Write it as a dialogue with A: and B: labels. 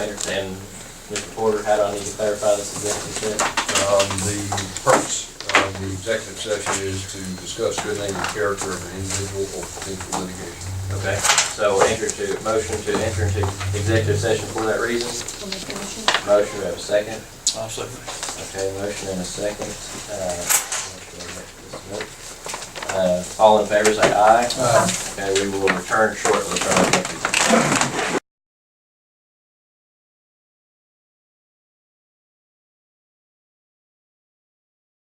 A: And Mr. Porter, how do I need to clarify this executive session?
B: Um, the purpose of the executive session is to discuss good name and character of an individual or potential litigation.
A: Okay, so enter to, motion to enter into executive session for that reason.
C: I'll make the motion.
A: Motion, we have a second.
D: I'll second.
A: Okay, motion and a second. Uh, Uh, all in favor, say aye. Okay, we will return shortly. from executive session.